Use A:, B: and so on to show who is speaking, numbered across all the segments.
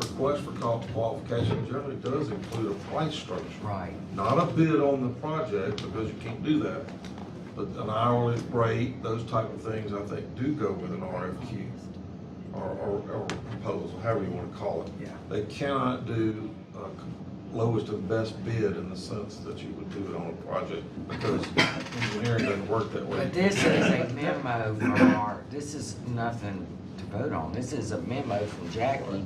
A: request for qual- qualification generally does include a price structure.
B: Right.
A: Not a bid on the project, because you can't do that, but an hourly rate, those type of things, I think, do go with an RFQ or, or, or proposal, however you wanna call it.
B: Yeah.
A: They cannot do, uh, lowest and best bid in the sense that you would do it on a project, because engineering doesn't work that way.
B: But this is a memo from our, this is nothing to vote on. This is a memo from Jackie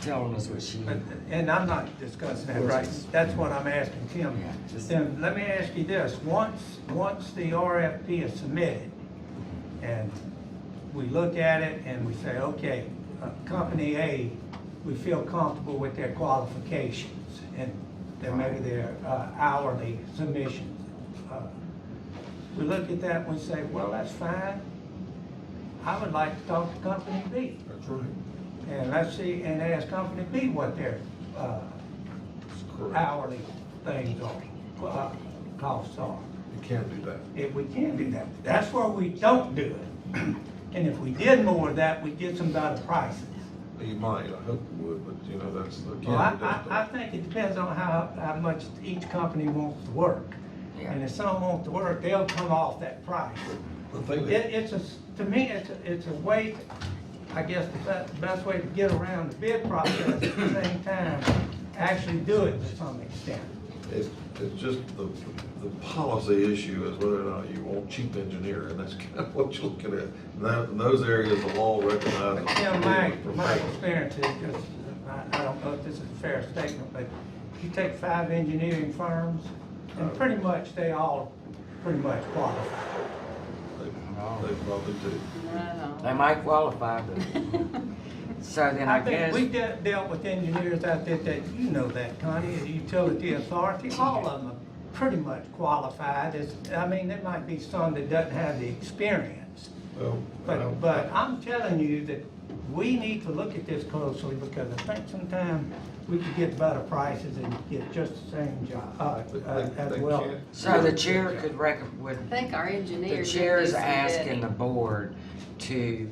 B: telling us what she,
C: But- And I'm not discussing that, right? That's what I'm asking Tim.
B: Yeah, just-
C: Tim, let me ask you this, once, once the RFP is submitted, and we look at it and we say, okay, uh, Company A, we feel comfortable with their qualifications, and then maybe their uh, hourly submissions. Uh, We look at that and we say, well, that's fine, I would like to talk to Company B.
A: That's right,
C: And let's see, and ask Company B what their uh,
A: that's correct.
C: hourly things are, uh, costs are.
A: You can't do that.
C: If we can do that, that's where we don't do it. And if we did more of that, we'd get some better prices.
A: You might, I hope you would, but you know, that's, again,
C: Well, I,
A: that's the-
C: I, I think it depends on how, how much each company wants to work.
B: Yeah.
C: And if some want to work, they'll come off that price.
A: the thing
C: It,
A: that.
C: it's a, s- to me, it's, a- it's a way, I guess, the best, best way to get around the bid process at the same time, actually do it to some extent.
A: It's, it's just the, the policy issue is whether or not you want cheap engineer, and that's kind of what you're looking at. And that, in those areas, the law recognizes.
C: But Tim, my, my
A: professional.
C: experience is just, I, I don't know if this is a fair statement, but you take five engineering firms, and pretty much, they all pretty much qualify.
A: They they probably do.
B: they might qualify, but. So then I
C: I think
B: guess,
C: we de- dealt with engineers out there that, you know that, Connie, the utility authority, all of them are pretty much qualified. It's, I mean, there might be some that doesn't have the experience.
A: Well, well,
C: But, but I'm telling you that we need to look at this closely because I think sometime we could get better prices and get just the same job, uh,
A: but they-
C: uh, as
A: they
C: well.
A: can't-
B: so the chair could recommend, would
D: I think our engineer.
B: The
D: did
B: chair
D: do
B: is
D: some
B: asking
D: bidding.
B: the board to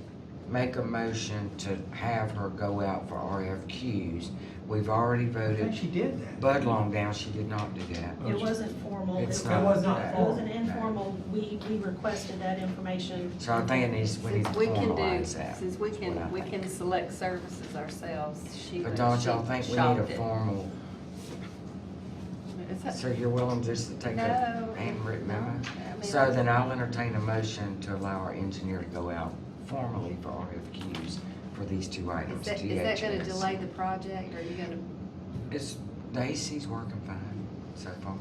B: make a motion to have her go out for RFQs. We've already
C: I think
B: voted
C: she did that.
B: Bud Longdown, she did not do that.
E: It wasn't formal.
B: Oh, It's
C: It was not
B: that.
E: It was an informal, we, we requested that information.
B: So I think it needs, we need to
D: Since we can do,
B: formalize that.
D: since we
B: That's what I
D: can, we
B: think.
D: can select services ourselves, she.
B: But don't y'all
D: she
B: think we need
D: shopped
B: a
D: it.
B: formal,
D: Is that-
B: so you're willing just to take a
D: No,
B: handwritten
D: no,
B: memo?
D: I mean,
B: So then I'll entertain a motion to allow our engineer to go out formally for RFQs for these two
D: Is
B: items,
D: that, is that gonna
B: DHS.
D: delay the project, or are you gonna,
B: It's, Daisy's working fine so far.
D: all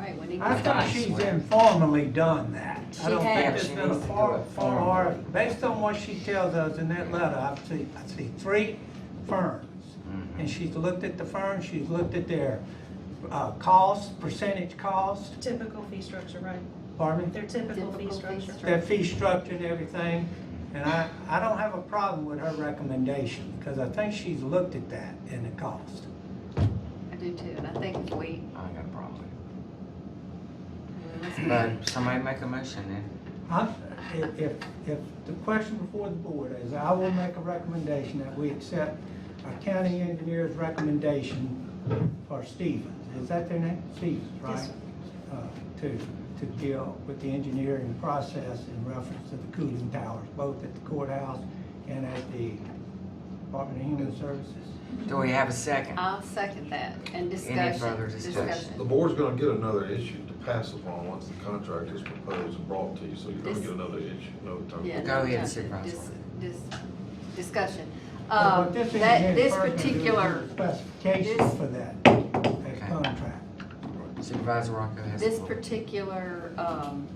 D: right, we need
C: I
D: to
C: think
D: start.
C: she's informally done that. I
D: She
C: don't think
D: has.
C: it's
B: She
C: been a
B: needs to do
C: far,
B: it
C: far,
B: formally.
C: based on what she tells us in that letter, I see, I see three firms.
B: Mm-hmm.
C: And she's looked at the firms, she's looked at their, uh, costs, percentage cost,
E: Typical fee structure, right?
C: pardon me?
E: Their typical
D: Typical
E: fee
D: fee
E: structure.
D: structure.
C: their fee structure and everything. And I, I don't have a problem with her recommendation, because I think she's looked at that and the cost.
D: I do too, and I think if we,
B: I ain't got a problem with it.
D: let's
B: But somebody make a motion then.
C: I'm, if, if, if the question before the board is, I will make a recommendation that we accept our county engineer's recommendation for Stevens, is that their name? Stevens, right?
E: Yes, sir.
C: Uh, To, to deal with the engineering process in reference to the cooling towers, both at the courthouse and at the Department of Human Services.
B: Do we have a second?
D: I'll second that, and discussion.
B: further discussion?
A: The board's gonna get another issue to pass upon once the contract is proposed and brought to you, so you're gonna
D: This-
A: get another issue, no time.
D: Yeah,
B: Go
D: no,
B: ahead,
D: no,
B: Supervisor.
D: dis- dis- Discussion.
C: But
D: Um,
C: what this
D: that,
C: engineering
D: this
C: firm can do is
D: particular,
C: Specifications
D: this-
C: for that,
B: Okay.
C: that contract.
B: Supervisor Rocco has. the
D: this
B: floor.
D: particular, um,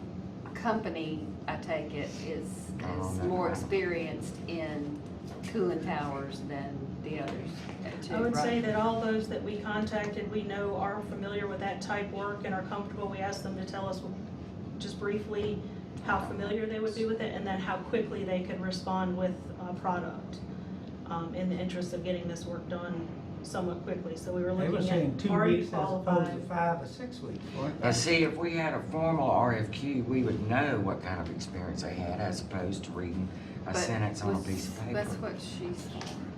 D: company, I take it, is,
B: Oh,
D: is
B: no.
D: more experienced in cooling towers than the others uh, too,
E: I would say
D: right?
E: that all those that we contacted, we know are familiar with that type work and are comfortable. We asked them to tell us just briefly how familiar they would be with it and then how quickly they could respond with a product um, in the interest of getting this work done somewhat quickly. So we
C: They
E: were
C: were
E: looking
C: saying
E: at,
C: two
E: are you
C: weeks as opposed to
E: qualified?
C: five or six weeks, weren't they?
B: Now, see, if we had a formal RFQ, we would know what kind of experience they had as opposed to reading a
D: But
B: sentence on a
D: was-
B: piece of paper.
D: That's what she's for.